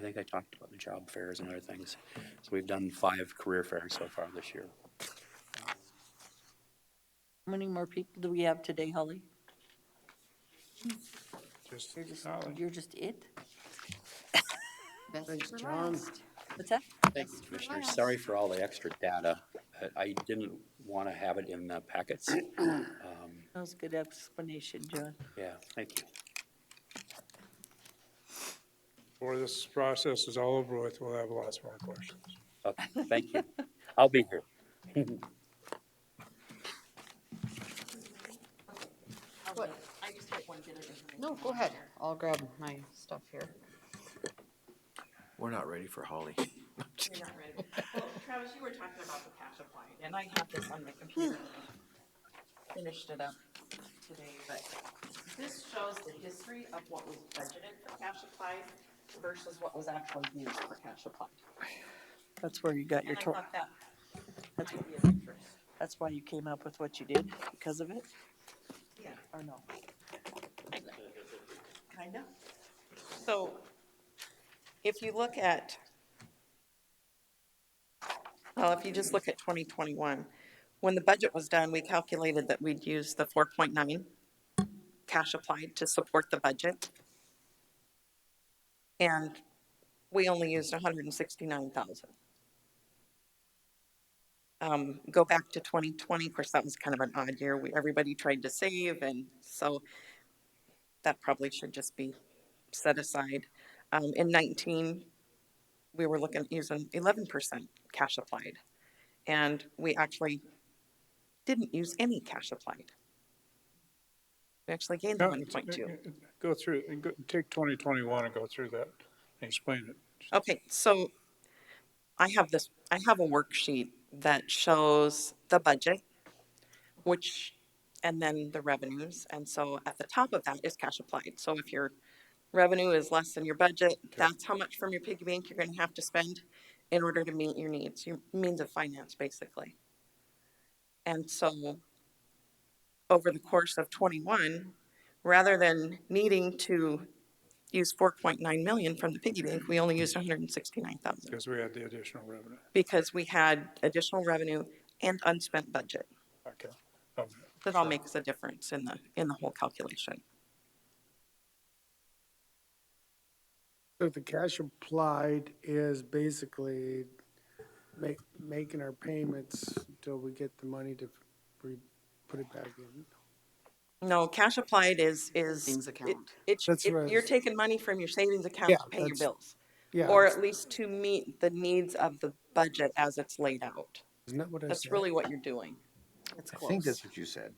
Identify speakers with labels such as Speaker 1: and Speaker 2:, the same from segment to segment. Speaker 1: think I talked about the job fairs and other things. So we've done five career fairs so far this year.
Speaker 2: How many more people do we have today, Holly?
Speaker 3: Just
Speaker 2: You're just,
Speaker 3: Holly.
Speaker 2: you're just it?
Speaker 4: Best
Speaker 5: Thanks,
Speaker 4: for
Speaker 5: John.
Speaker 4: last.
Speaker 2: What's that?
Speaker 1: Thank you,
Speaker 4: Best for
Speaker 1: Commissioner.
Speaker 4: last.
Speaker 1: Sorry for all the extra data, but I didn't want to have it in the packets. Um,
Speaker 2: That was a good explanation, John.
Speaker 1: Yeah, thank you.
Speaker 3: Before this process is all over with, we'll have lots more questions.
Speaker 1: Okay, Oh, Thank you. I'll be here.
Speaker 4: What?
Speaker 2: I just want to get it information.
Speaker 4: No, go ahead. I'll grab my stuff here.
Speaker 6: We're not ready for Holly.
Speaker 5: You're not ready. Well, Travis, you were talking about the passion point, and I have this on my computer. Finished it up today, but this shows the history of what was budgeted for cash applied versus what was actually used for cash applied.
Speaker 2: That's where you got your,
Speaker 5: And I
Speaker 2: tor-
Speaker 5: thought that
Speaker 2: That's-
Speaker 5: might be of interest.
Speaker 2: that's why you came up with what you did, because of it,
Speaker 5: Yeah,
Speaker 2: or no?
Speaker 5: kind of. So if you look at, well, if you just look at 2021, when the budget was done, we calculated that we'd use the 4.9 cash applied to support the budget. And we only used 169,000. Um, Go back to 2020, of course, that was kind of an odd year. We, everybody tried to save, and so that probably should just be set aside. Um, in nineteen, we were looking, at using eleven percent cash applied. And we actually didn't use any cash applied. We actually gained the
Speaker 3: No,
Speaker 5: one point two.
Speaker 3: Go through, and go- take 2021 and go through that and explain it.
Speaker 5: Okay, so I have this, I have a worksheet that shows the budget, which, and then the revenues. And so at the top of that is cash applied. So if your revenue is less than your budget, that's how much from your piggy bank you're gonna have to spend in order to meet your needs, your means of finance, basically. And so over the course of twenty-one, rather than needing to used four point nine million from the piggy bank, we only used hundred and sixty-nine thousand
Speaker 3: Because we had the additional revenue.
Speaker 5: because we had additional revenue and unspent budget.
Speaker 3: Okay. Okay.
Speaker 5: That all makes a difference in the, in the whole calculation.
Speaker 7: So the cash applied is basically make, making our payments until we get the money to re, put it back in.
Speaker 5: No, cash applied is, is.
Speaker 4: Savings
Speaker 5: it-
Speaker 4: account.
Speaker 5: It's,
Speaker 7: That's
Speaker 5: it-
Speaker 7: right.
Speaker 5: you're taking money from your savings account
Speaker 7: Yeah,
Speaker 5: to pay your
Speaker 7: that's-
Speaker 5: bills.
Speaker 7: Yeah,
Speaker 5: Or at least to meet the needs of the budget as it's laid out.
Speaker 7: isn't that what I
Speaker 5: That's
Speaker 7: said?
Speaker 5: really what you're doing.
Speaker 4: It's
Speaker 6: I think
Speaker 4: close.
Speaker 6: that's what you said.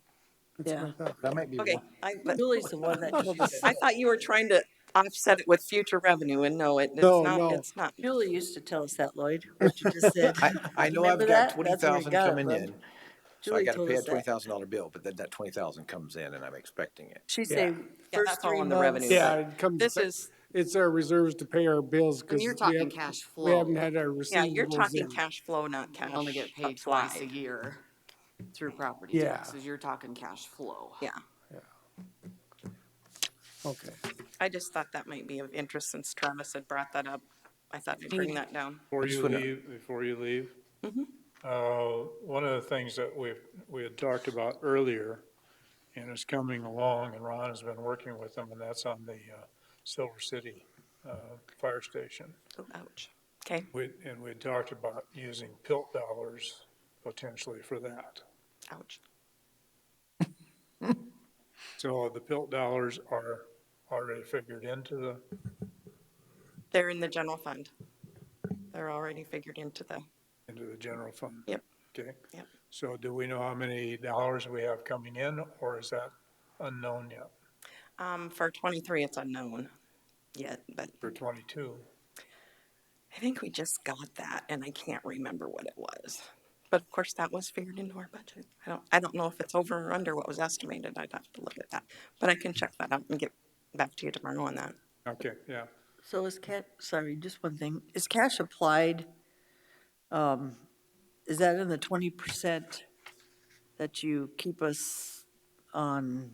Speaker 7: That's what I thought.
Speaker 6: That might be.
Speaker 5: Okay, I, but
Speaker 2: Julie's the one that told us.
Speaker 5: I thought you were trying to offset it with future revenue and no, it, it's
Speaker 7: No,
Speaker 5: not,
Speaker 7: no.
Speaker 5: it's not.
Speaker 2: Julie used to tell us that, Lloyd, what you just said.
Speaker 6: I, I know I've
Speaker 2: Remember
Speaker 6: got
Speaker 2: that?
Speaker 6: twenty
Speaker 2: That's where we
Speaker 6: thousand
Speaker 2: got it
Speaker 6: coming
Speaker 2: from.
Speaker 6: in, so I
Speaker 2: Julie
Speaker 6: gotta
Speaker 2: told
Speaker 6: pay a
Speaker 2: us
Speaker 6: twenty
Speaker 2: that.
Speaker 6: thousand dollar bill, but then that twenty thousand comes in and I'm expecting it.
Speaker 2: She said,
Speaker 5: Yeah,
Speaker 2: first
Speaker 5: that's all
Speaker 2: three
Speaker 5: on the revenue
Speaker 2: months.
Speaker 5: side.
Speaker 7: Yeah, it comes,
Speaker 5: This is,
Speaker 7: it's our reserves to pay our bills
Speaker 4: And
Speaker 7: because
Speaker 4: you're
Speaker 7: we
Speaker 4: talking
Speaker 7: haven't,
Speaker 4: cash
Speaker 7: we
Speaker 4: flow.
Speaker 7: haven't
Speaker 4: You
Speaker 7: had our
Speaker 5: yeah, you're
Speaker 7: receivables
Speaker 5: talking
Speaker 7: in.
Speaker 5: cash flow, not cash
Speaker 4: Only get paid twice a
Speaker 5: applied.
Speaker 4: year through property
Speaker 7: Yeah.
Speaker 4: taxes. You're talking cash flow.
Speaker 5: Yeah,
Speaker 7: Okay,
Speaker 5: I just thought that might be of interest since Travis had brought that up. I thought I'd bring that down.
Speaker 3: Before
Speaker 6: just
Speaker 3: you
Speaker 6: wanna-
Speaker 3: leave, before you leave, uh, one of the things that we, we had talked about earlier, and is coming along, and Ron has been working with them, and that's on the uh, Silver City uh, Fire Station.
Speaker 5: Oh, Ouch. Okay,
Speaker 3: We, and we talked about using PILT dollars potentially for that.
Speaker 5: ouch.
Speaker 3: So the PILT dollars are already figured into the,
Speaker 5: They're in the general fund. They're already figured into the,
Speaker 3: into the general fund.
Speaker 5: Yep.
Speaker 3: Okay.
Speaker 5: Yep.
Speaker 3: So do we know how many dollars we have coming in, or is that unknown yet
Speaker 5: um, for twenty-three, it's unknown yet, but
Speaker 3: for twenty-two?
Speaker 5: I think we just got that and I can't remember what it was. But of course, that was figured into our budget. I don't, I don't know if it's over or under what was estimated. I'd have to look at that. But I can check that out and get back to you tomorrow on that.
Speaker 3: Okay, yeah.
Speaker 2: So is cash, sorry, just one thing. Is cash applied, um, is that in the twenty percent that you keep us on